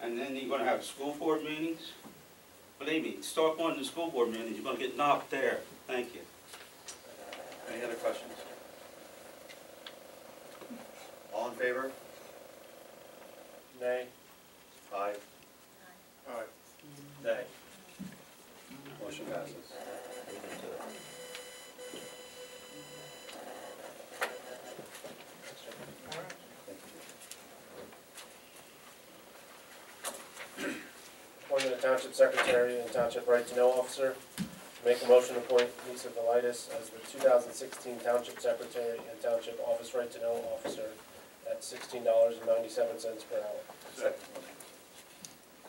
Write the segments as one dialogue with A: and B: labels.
A: and then you're gonna have school board meetings. Believe me, start going to school board meetings, you're gonna get knocked there. Thank you.
B: Any other questions? All in favor?
C: Nay.
B: Aye.
C: Aye.
B: Nay. Motion passes.
C: Appointment of Township Secretary and Township Right to Know Officer. Make a motion to appoint Lisa Velitis as the two thousand sixteen Township Secretary and Township Office Right to Know Officer at sixteen dollars and ninety-seven cents per hour.
B: Second.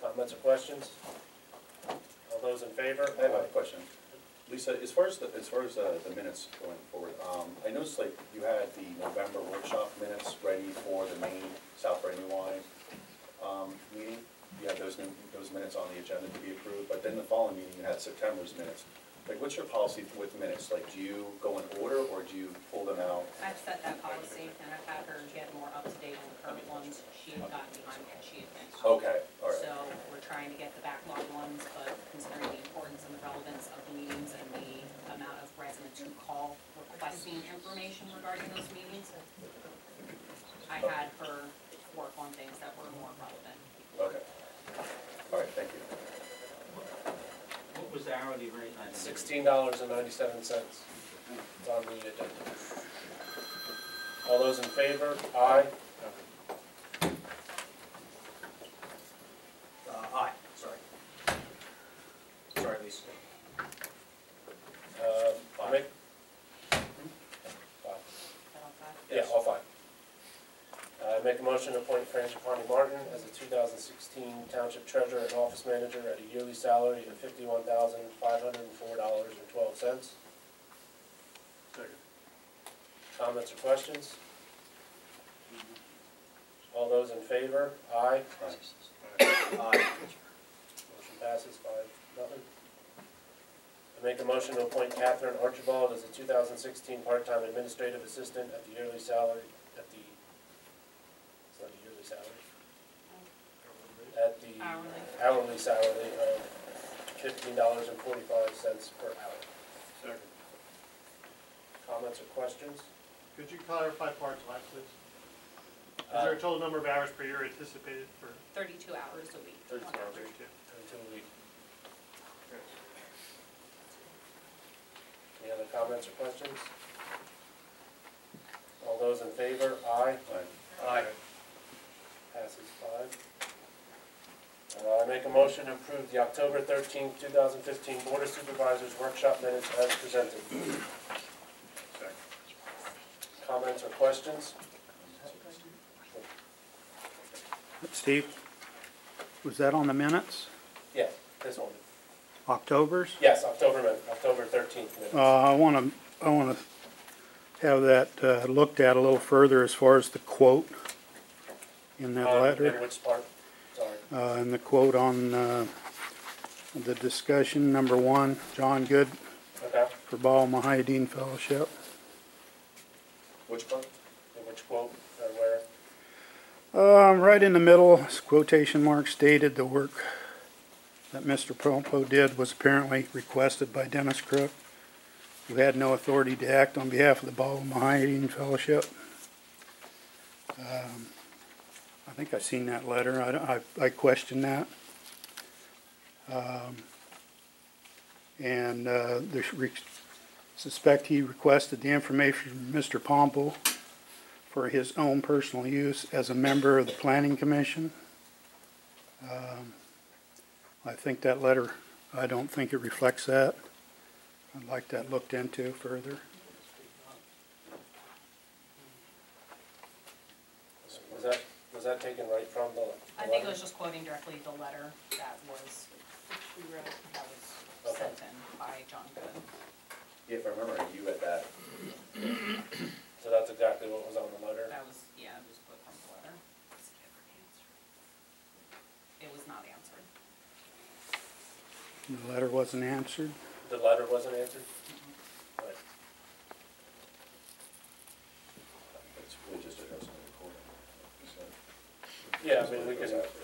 C: Comments or questions? All those in favor?
B: I have a question. Lisa, as far as, the- as far as uh, the minutes going forward, um, I noticed like you had the November workshop minutes ready for the main South Brandywine, um, meeting. You had those, new- those minutes on the agenda to be approved, but then the following meeting, you had September's minutes. Like, what's your policy with minutes? Like, do you go in order or do you pull them out?
D: I've set that policy and I've had her get more up to date on the current ones. She had gotten behind and she had been. out.
B: Okay, Oh, all right.
D: So we're trying to get the backlog ones, but considering the importance and the relevance of the meetings and the amount of residents who call requesting information regarding those meetings, I had her work on things that were more relevant.
B: Okay. All right, thank you.
A: What was the hourly rate? I didn't-
C: Sixteen dollars and ninety-seven cents. It's on the agenda. All those in favor? Aye.
E: Uh, aye, sorry. Sorry, Lisa.
C: Uh, I make-
E: Hmm?
C: Five.
D: Is that all five?
C: Yeah, all five. Uh, make a motion to appoint Francis Connie Martin as the two thousand sixteen Township Treasurer and Office Manager at a yearly salary of fifty-one thousand five hundred and four dollars and twelve cents. Comments or questions? All those in favor? Aye.
B: Aye.
E: Aye.
C: Motion passes five, nothing. I make a motion to appoint Catherine Archibald as a two thousand sixteen part-time administrative assistant at the yearly salary, at the, it's not a yearly salary. At the
D: Hourly.
C: hourly salary of fifteen dollars and forty-five cents per hour.
F: Second.
C: Comments or questions?
F: Could you clarify part-time, please? Is
C: Uh,
F: there a total number of hours per year anticipated for
D: Thirty-two hours a week.
C: 32
D: on
C: hours a
D: average.
F: thirty-two?
C: Uh, Until we, any other comments or questions? All those in favor, aye.
B: Aye.
E: Aye.
C: Passes five. Uh, I make a motion to approve the October thirteenth, two thousand fifteen Board of Supervisors Workshop Minutes as presented. Comments or questions?
G: Steve, was that on the minutes?
C: Yeah, this one.
G: October's?
C: Yes, October min, October thirteenth minutes.
G: Uh, I want to, I want to have that uh, looked at a little further as far as the quote in that
C: Um,
G: letter.
C: and which part? Sorry.
G: Uh, and the quote on, uh, the discussion, number one, John Good
C: Okay,
G: for Baal Mahideen Fellowship.
B: Which part?
C: and which quote or where?
G: Um, right in the middle, quotation mark stated, the work that Mr. Pompo did was apparently requested by Dennis Crook, who had no authority to act on behalf of the Ball Mahian Fellowship. Um, I think I've seen that letter. I, don't- I, I question that. Um, and, uh, there's, re- suspect he requested the information from Mr. Pompo for his own personal use as a member of the planning commission. Um, I think that letter, I don't think it reflects that. I'd like that looked into further.
C: Was that, was that taken right from the?
D: I think it was just quoting directly the letter that was, that was sent in by John Good.
B: Yeah, If I remember, right, you had that.
C: So that's exactly what was on the letter?
D: That was, yeah, it was quote from the letter. It was not answered.
G: The letter wasn't answered.
C: The letter wasn't answered?
D: Mm-hmm.
C: Right.
B: It's really just a recording.
C: Yeah, I mean, we can,